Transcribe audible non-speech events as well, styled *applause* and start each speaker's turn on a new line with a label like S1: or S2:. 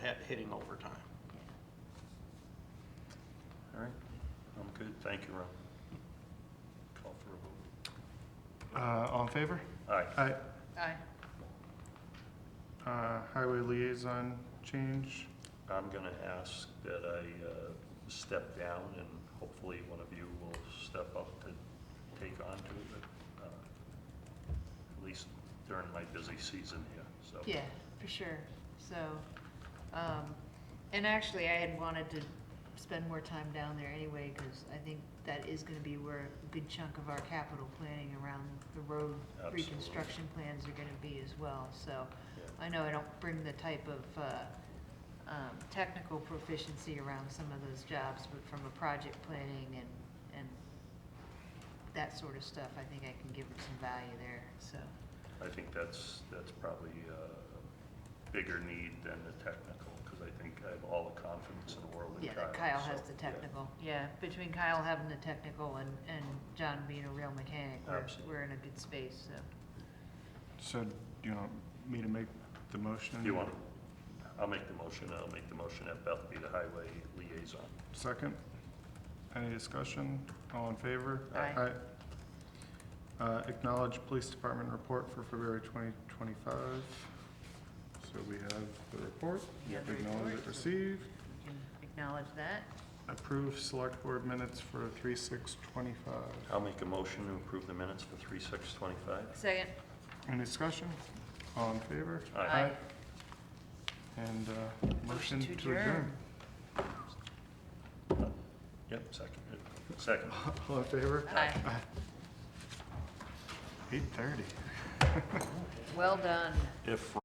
S1: hitting overtime.
S2: All right, I'm good, thank you, Ron. Call for a
S3: Uh, all in favor?
S2: vote. Aye.
S3: Aye.
S4: Aye.
S3: Uh, highway liaison change,
S2: I'm gonna ask that I uh, step down, and hopefully one of you will step up to take on to it, uh, at least during my busy season here, so.
S4: Yeah, for sure. So, um, and actually, I had wanted to spend more time down there anyway, because I think that is gonna be where a good chunk of our capital planning around the road
S2: Absolutely.
S4: reconstruction plans are gonna be as well, so.
S2: Yeah.
S4: I know I don't bring the type of, uh, um, technical proficiency around some of those jobs, but from a project planning and, and that sort of stuff, I think I can give them some value there, so.
S2: I think that's, that's probably a bigger need than the technical, because I think I have all the confidence in the world in
S4: Yeah,
S2: Kyle.
S4: that Kyle has
S2: so,
S4: the
S2: yeah.
S4: technical, yeah, between Kyle having the technical and, and John being a real mechanic, we're,
S2: Absolutely.
S4: we're in a good space, so.
S3: so do you want me to make the motion?
S2: You want, I'll make the motion, I'll make the motion that Beth be the highway liaison.
S3: Second? Any discussion? All in favor?
S4: Aye.
S3: Aye. Uh, acknowledge police department report for February twenty twenty-five. So we have the report,
S4: You have the
S3: acknowledge it
S4: report.
S3: received,
S4: we can acknowledge that.
S3: approve select board minutes for three six twenty-five.
S2: I'll make a motion to approve the minutes for three six twenty-five.
S4: Second,
S3: Any discussion? All in favor?
S2: Aye.
S4: Aye.
S3: And, uh, motion to adjourn. *laughs*
S2: Yep, second, second.
S3: All in favor?
S4: Aye,
S3: Eight thirty.
S4: well done.
S2: If